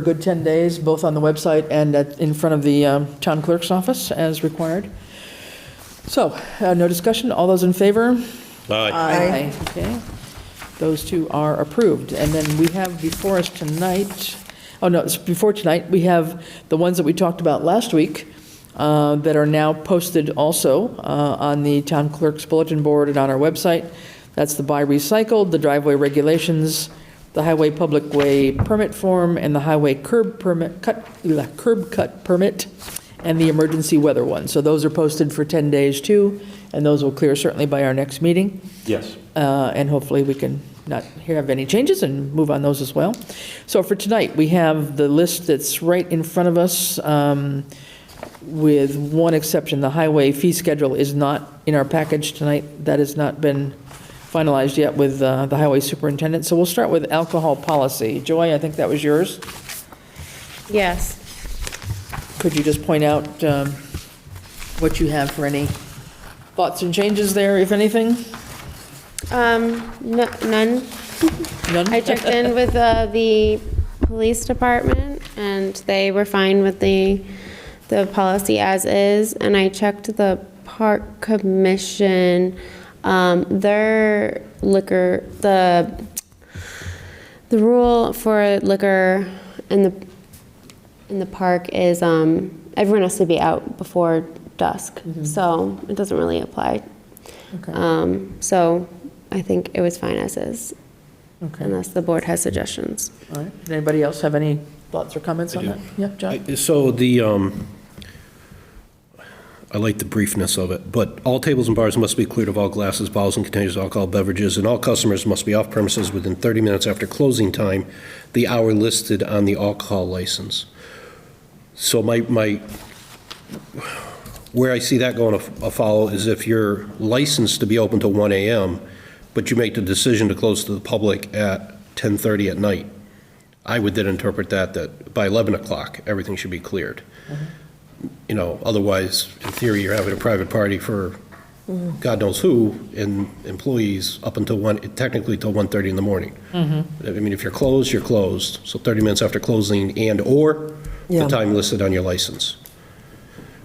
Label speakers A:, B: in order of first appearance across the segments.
A: a good 10 days, both on the website and at, in front of the um, town clerk's office as required. So, uh, no discussion, all those in favor?
B: Aye.
A: Aye. Okay, those two are approved. And then we have before us tonight, oh no, it's before tonight, we have the ones that we talked about last week uh, that are now posted also uh, on the town clerk's bulletin board and on our website. That's the buy recycled, the driveway regulations, the highway public way permit form, and the highway curb permit, cut, ugh, curb cut permit, and the emergency weather one. So those are posted for 10 days too, and those will clear certainly by our next meeting.
B: Yes.
A: Uh, and hopefully we can not have any changes and move on those as well. So for tonight, we have the list that's right in front of us, um, with one exception, the highway fee schedule is not in our package tonight. That has not been finalized yet with uh, the highway superintendent. So we'll start with alcohol policy. Joy, I think that was yours.
C: Yes,
A: Could you just point out um, what you have for any thoughts and changes there, if anything?
C: um, no- none.
A: None?
C: I checked in with uh, the police department, and they were fine with the, the policy as is, and I checked the park commission, um, their liquor, the, the rule for liquor in the, in the park is, um, everyone has to be out before dusk, so it doesn't really apply.
A: Okay.
C: Um, so I think it was fine as is,
A: Okay.
C: unless the board has suggestions.
A: All right, Does anybody else have any thoughts or comments on that? Yeah, John?
B: So the, um, I like the briefness of it, but all tables and bars must be cleared of all glasses, bottles, and containers of alcohol beverages, and all customers must be off premises within 30 minutes after closing time, the hour listed on the alcohol license. So my, my, where I see that going af- afoul is if you're licensed to be open to 1 AM, but you make the decision to close to the public at 10:30 at night. I would then interpret that, that by 11 o'clock, everything should be cleared. You know, otherwise, in theory, you're having a private party for God knows who, and employees up until 1, technically till 1:30 in the morning. I mean, if you're closed, you're closed, so 30 minutes after closing and/or
A: Yeah.
B: the time listed on your license,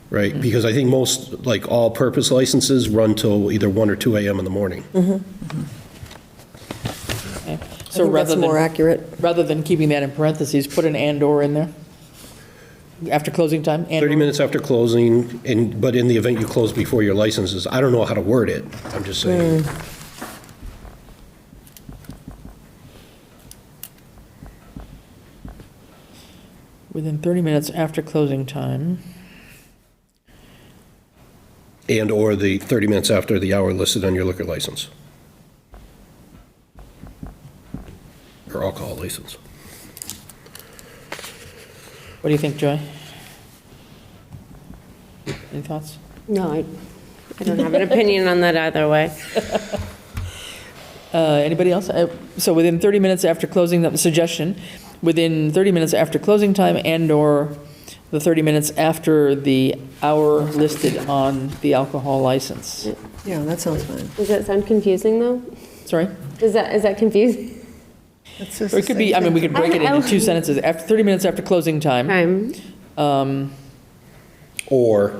B: right? Because I think most, like, all-purpose licenses run till either 1 or 2 AM in the morning.
A: Okay.
D: I
A: So
D: think
A: rather
D: that's more
A: than,
D: accurate.
A: rather than keeping that in parentheses, put an and/or in there? After closing time? and-
B: 30 minutes after closing, and, but in the event you close before your licenses, I don't know how to word it, I'm just saying.
C: Hmm.
A: Within 30 minutes after closing time.
B: And/or the 30 minutes after the hour listed on your liquor license. Or alcohol license.
A: What do you think, Joy? Any thoughts?
C: No, I. I don't have an opinion on that either way.
A: Uh, Anybody else? Uh, So within 30 minutes after closing, the suggestion, within 30 minutes after closing time and/or the 30 minutes after the hour listed on the alcohol license.
D: Yeah, that sounds fine.
C: Does that sound confusing, though?
A: Sorry?
C: Is that, is that confusing?
A: Or it could be, I mean, we could break it
C: I- I-
A: into two sentences. After 30 minutes after closing time,
C: Time,
A: um,
B: Or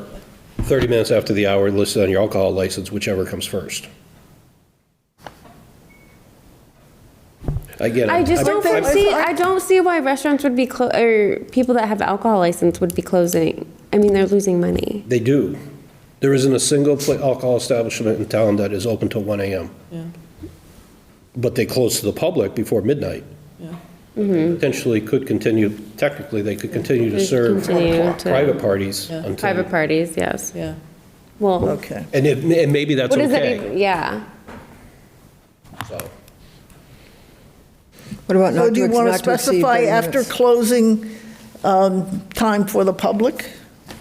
B: 30 minutes after the hour listed on your alcohol license, whichever comes first. Again,
C: I
B: I'm-
C: just don't
B: I'm-
C: see, I don't see why restaurants would be, clo- or people that have alcohol license would be closing. I mean, they're losing money.
B: They do. There isn't a single pla- alcohol establishment in town that is open till 1 AM.
A: Yeah.
B: But they close to the public before midnight.
A: Yeah.
B: Potentially could continue, technically, they could continue to
C: Mm-hmm. Could
B: serve
C: continue to-
B: private parties
A: Yeah.
B: until.
C: Private parties, yes.
A: yeah.
C: Well,
D: Okay.
B: And if- and maybe that's
C: what is that
B: okay.
C: even, yeah.
B: so.
D: What about
E: So
D: not
E: do
D: to
E: you
D: ex-
E: want to
D: not to exceed
E: specify
D: 30
E: after
D: minutes?
E: closing um, time for the public?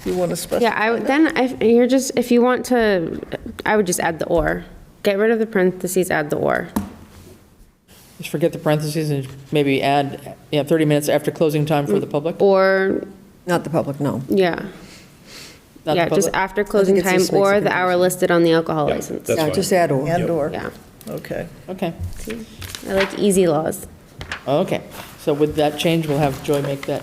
E: Do you want to specify?
C: Yeah, I, would- then if, you're just, if you want to, I would just add the or. Get rid of the parentheses, add the or.
A: Just forget the parentheses and maybe add, yeah, 30 minutes after closing time for the public,
C: Or,
D: Not the public, no.
C: yeah,
A: not the
C: yeah, just
A: public.
C: after closing
D: it's
C: time
D: just makes
C: or
D: it
C: the hour listed on the alcohol
B: Yeah,
C: license.
B: That's
D: Yeah,
B: fine.
D: just add or.
E: And/or,
C: Yeah,
E: okay.
A: Okay,
C: I like easy laws.
A: okay. So with that change, we'll have Joy make that